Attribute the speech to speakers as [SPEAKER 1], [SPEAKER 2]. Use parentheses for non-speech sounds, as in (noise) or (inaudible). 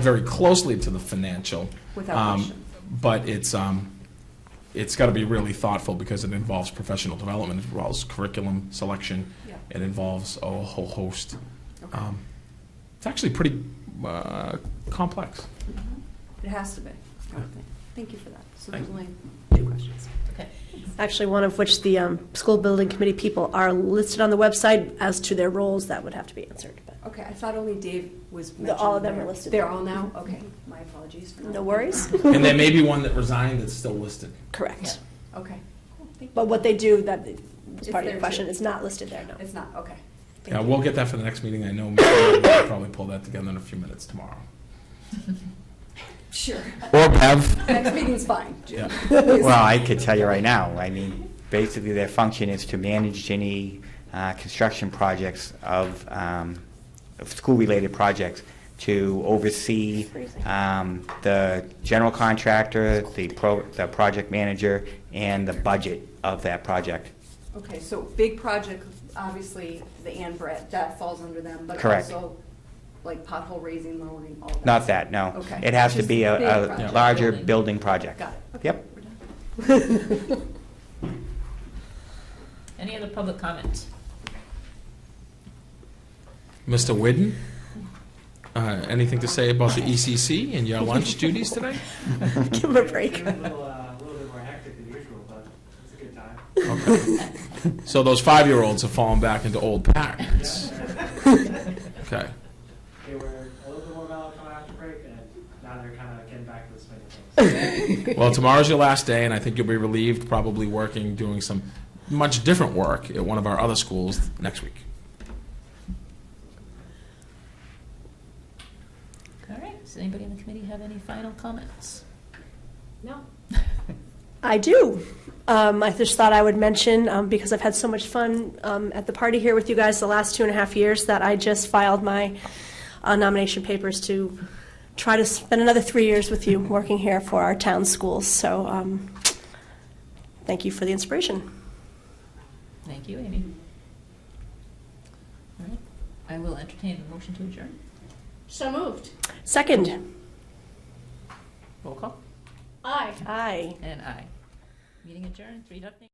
[SPEAKER 1] very closely to the financial.
[SPEAKER 2] Without
[SPEAKER 1] um,
[SPEAKER 2] question.
[SPEAKER 1] But it's, um, it's got to be really thoughtful because it involves professional development, it involves curriculum selection,
[SPEAKER 2] Yeah.
[SPEAKER 1] it involves a whole host.
[SPEAKER 2] Okay.
[SPEAKER 1] Um, It's actually pretty uh, complex.
[SPEAKER 2] Mm-hmm. It has to be. I would think. Thank you for that. So there's
[SPEAKER 1] Thank-
[SPEAKER 2] only two questions.
[SPEAKER 3] Actually, one of which the um, school building committee people are listed on the website as to their roles, that would have to be answered. but-
[SPEAKER 2] Okay, I thought only Dave was
[SPEAKER 3] The-
[SPEAKER 2] mentioned.
[SPEAKER 3] all of them are
[SPEAKER 2] there.
[SPEAKER 3] listed. Mm-hmm.
[SPEAKER 2] They're all now? Okay, my apologies for not.
[SPEAKER 3] No worries.
[SPEAKER 2] (laughs)
[SPEAKER 1] And there may be one that resigned that's still listed.
[SPEAKER 3] Correct.
[SPEAKER 2] Okay. Cool, thank
[SPEAKER 3] But what they do, that is
[SPEAKER 2] It's
[SPEAKER 3] part of
[SPEAKER 2] there,
[SPEAKER 3] your question,
[SPEAKER 2] too.
[SPEAKER 3] it's not listed there, no.
[SPEAKER 2] you.
[SPEAKER 3] (laughs)
[SPEAKER 2] It's not, okay.
[SPEAKER 3] Thank
[SPEAKER 1] Yeah,
[SPEAKER 3] you.
[SPEAKER 1] we'll get that for the next meeting. I know we'll probably pull that together in a few minutes tomorrow.
[SPEAKER 2] Sure. (laughs)
[SPEAKER 4] Or Bev.
[SPEAKER 2] Next meeting's fine. Jim.
[SPEAKER 1] Yeah.
[SPEAKER 2] Please.
[SPEAKER 4] Well, I could tell you right now, I mean, basically their function is to manage any uh, construction projects of, um, of school-related projects, to oversee um, the general contractor, the pro, the project manager, and the budget of that project.
[SPEAKER 2] Okay, so big project, obviously, the Ann Brett, that falls under them, but
[SPEAKER 4] Correct.
[SPEAKER 2] also like pothole raising, lowering, all that.
[SPEAKER 4] Not that, no.
[SPEAKER 2] Okay.
[SPEAKER 4] It has to
[SPEAKER 2] Just
[SPEAKER 4] be
[SPEAKER 2] big
[SPEAKER 4] a- a
[SPEAKER 2] project.
[SPEAKER 4] larger building project.
[SPEAKER 2] Got it. Okay,
[SPEAKER 4] Yep.
[SPEAKER 2] we're done.
[SPEAKER 5] Any other public comment?
[SPEAKER 1] Mr. Whidden, uh, anything to say about the ECC and your lunch duties today?
[SPEAKER 3] Give them a break.
[SPEAKER 6] It was a little, uh, a little bit more hectic than usual, but it's a good time.
[SPEAKER 1] So those five-year-olds have fallen back into old patterns. Okay.
[SPEAKER 6] They were a little bit more melancholy after break, and now they're kind of getting back to the swing of things.
[SPEAKER 1] Well, tomorrow's your last day, and I think you'll be relieved, probably working, doing some much different work at one of our other schools next week.
[SPEAKER 5] All right, does anybody in the committee have any final comments? No.
[SPEAKER 3] I do. Um, I just thought I would mention, um, because I've had so much fun um, at the party here with you guys the last two and a half years, that I just filed my uh, nomination papers to try to spend another three years with you working here for our town schools. So um, thank you for the inspiration.
[SPEAKER 5] (laughs) Thank you, Amy. All right, I will entertain a motion to adjourn.
[SPEAKER 7] So moved.
[SPEAKER 3] Second.
[SPEAKER 5] Roll call.
[SPEAKER 7] Aye.
[SPEAKER 3] Aye.
[SPEAKER 5] And aye. Meeting adjourned, three nothing.